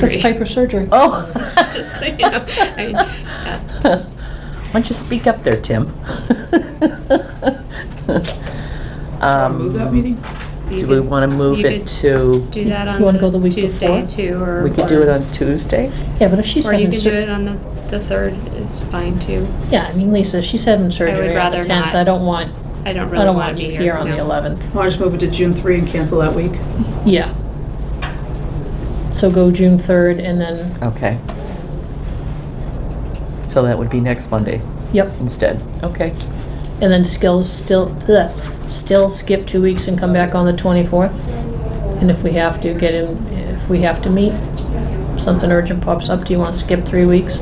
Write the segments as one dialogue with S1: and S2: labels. S1: That's Piper surgery.
S2: Oh.
S3: Just so you know, I- yeah.
S2: Why don't you speak up there, Tim?
S4: Move that
S2: Um,
S4: meeting?
S3: You
S2: Do we
S3: could
S2: want to move
S3: you
S2: it
S3: could
S2: to,
S3: Do that
S1: You
S3: on.
S1: wanna go the week
S3: Tuesday
S1: before?
S3: too, or.
S2: we could do it on Tuesday?
S1: Yeah, but if she's
S3: Or you
S1: having,
S3: could do
S1: sur-
S3: it on the, the third is fine too.
S1: yeah, I mean, Lisa, she's having surgery on the
S3: rather
S1: 10th.
S3: not.
S1: I don't want,
S3: I don't
S1: I
S3: really
S1: don't
S3: want
S1: want
S3: to
S1: you
S3: be here.
S1: here on the
S3: no.
S1: 11th.
S4: I'll just move it to June 3 and cancel that week.
S1: Yeah. So go June 3rd and then,
S2: Okay. So that would be next Monday
S1: yep,
S2: instead. Okay.
S1: and then still, still, ugh, still skip two weeks and come back on the 24th. And if we have to get in, if we have to meet, if something urgent pops up, do you want to skip three weeks?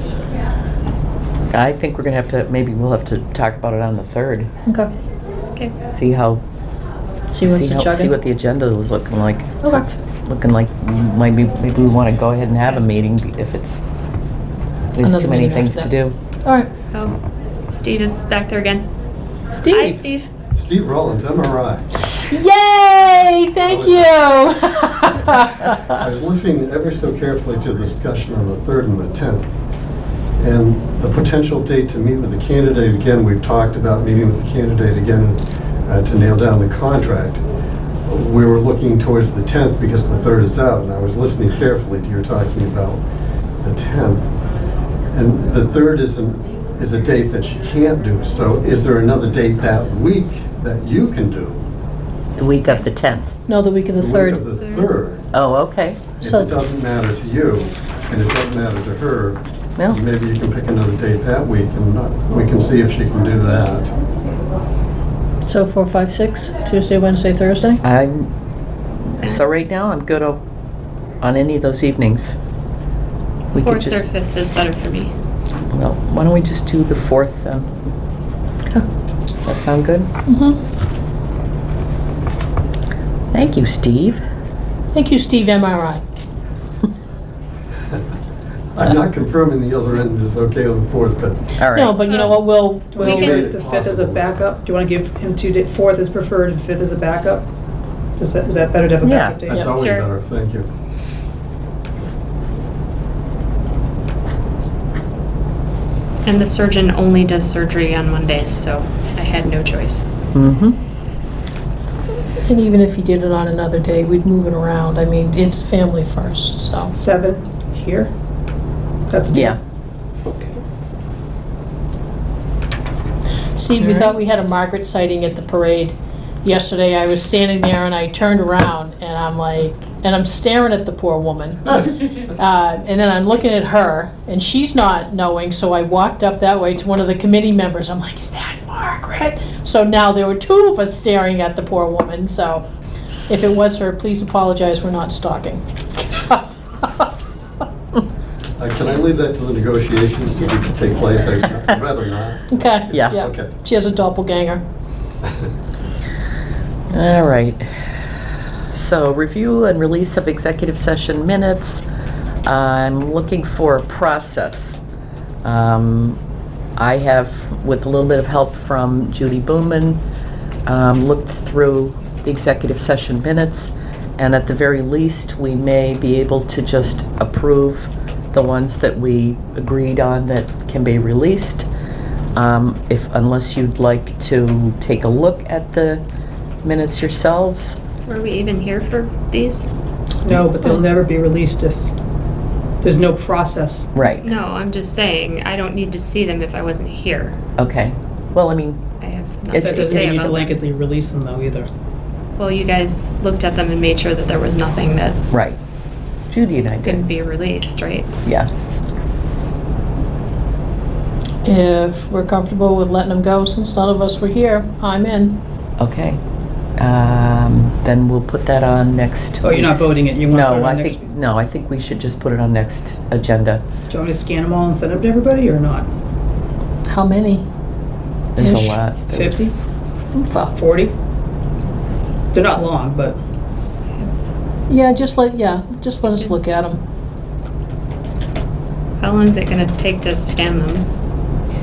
S2: I think we're going to have to, maybe we'll have to talk about it on the 3rd.
S1: Okay,
S3: Okay,
S2: See how,
S1: see what's the
S2: how- see what
S1: chugging.
S2: the agenda is looking like.
S1: Okay.
S2: It's Looking like maybe, maybe we want to go ahead and have a meeting if it's, there's
S1: Another
S2: too many
S1: meeting
S2: things to
S1: after
S2: do.
S1: All right,
S3: oh, Steve is back there again. Hi,
S2: Steve?
S3: Steve.
S5: Steve Rollins, MRI.
S2: Yay! Thank you.
S5: I was listening ever so carefully to the discussion on the 3rd and the 10th, and the potential date to meet with the candidate again, we've talked about meeting with the candidate again uh, to nail down the contract. We were looking towards the 10th because the 3rd is out, and I was listening carefully to your talking about the 10th. And the 3rd is, an- is a date that you can't do, so is there another date that week that you can do?
S2: the week of the 10th.
S1: no, the week of the
S5: The week of
S1: 3rd.
S5: the 3rd.
S2: Oh, okay.
S5: If
S1: So-
S5: it doesn't matter to you, and it doesn't matter to
S2: No.
S5: her, maybe you can pick another date that week, and not- we can see if she can do that.
S1: So four, five, six, Tuesday, Wednesday, Thursday?
S2: I'm so right now I'm good o- on any of those evenings. We could
S3: Fourth or
S2: just
S3: fifth is better for me.
S2: well, why don't we just do the fourth then?
S1: Okay.
S2: That sound good?
S1: Mm-hmm.
S2: Thank you, Steve.
S1: Thank you, Steve MRI.
S5: I'm not confirming the other end is okay on the 4th, but
S2: All right.
S1: No, but you know what, we'll,
S4: Do you
S1: we'll,
S4: want to
S3: can-
S4: leave the 5th as a
S5: Possible.
S4: backup? Do you want to give him two, da- 4th is preferred and 5th is a backup? Does that, is that better to have a
S2: Yeah.
S4: backup date?
S5: that's always
S3: sure.
S5: better, thank you.
S3: And the surgeon only does surgery on Mondays, so I had no choice.
S2: mm-hmm.
S1: and even if he did it on another day, we'd move it around. I mean, it's family first, so.
S4: 7 here? Is that the date?
S2: Yeah.
S1: Steve, we thought we had a Margaret sighting at the parade. Yesterday, I was standing there and I turned around and I'm like, and I'm staring at the poor woman. Uh, And then I'm looking at her and she's not knowing, so I walked up that way to one of the committee members. I'm like, is that Margaret? So now there were two of us staring at the poor woman, so if it was her, please apologize, we're not stalking.
S5: Uh, Can I leave that to the negotiations to be- take place? I'd rather not.
S1: Okay?
S2: Yeah.
S5: Okay.
S1: She has a doppelganger.
S2: All right. So review and release of executive session minutes. I'm looking for a process. Um, I have, with a little bit of help from Judy Booman, um, looked through the executive session minutes, and at the very least, we may be able to just approve the ones that we agreed on that can be released. Um, If, unless you'd like to take a look at the minutes yourselves.
S3: Were we even here for these?
S4: No, but they'll never be released if, there's no process.
S2: Right.
S3: No, I'm just saying, I don't need to see them if I wasn't here.
S2: Okay. Well, I mean,
S3: I have
S2: It's-
S4: That
S3: nothing to
S4: doesn't
S3: say
S4: mean you
S3: about them.
S4: blanketly release them though either.
S3: Well, you guys looked at them and made sure that there was nothing that
S2: right. Judy and I did.
S3: couldn't be released, right?
S2: Yeah.
S1: If we're comfortable with letting them go, since none of us were here, I'm in.
S2: Okay. Um, then we'll put that on next.
S4: Oh, you're not
S2: week's-
S4: voting it, you want to put it
S2: No,
S4: on
S2: I
S4: next?
S2: think, no, I think we should just put it on next agenda.
S4: Do you want me to scan them all and send them to everybody or not?
S1: How many?
S2: There's
S1: Ish.
S2: a lot. There was-
S4: 50,
S1: Oofa.
S4: 40? They're not long, but
S1: Yeah, just let, yeah, just let us look at them.
S3: How long is it gonna take to scan them?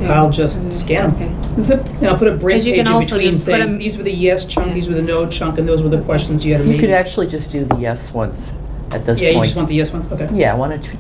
S4: I'll just scan them.
S3: Okay.
S4: And I'll put a break
S3: Because you
S4: page
S3: can
S4: in
S3: also
S4: between
S3: just put
S4: saying,
S3: 'em-
S4: these were the yes chunk,
S3: Yeah.
S4: these were the no chunk, and those were the questions you had a
S2: You could
S4: meeting.
S2: actually just do the yes ones
S4: at this
S2: Yeah,
S4: point.
S2: you just want the yes ones, okay.
S4: Yeah, I want to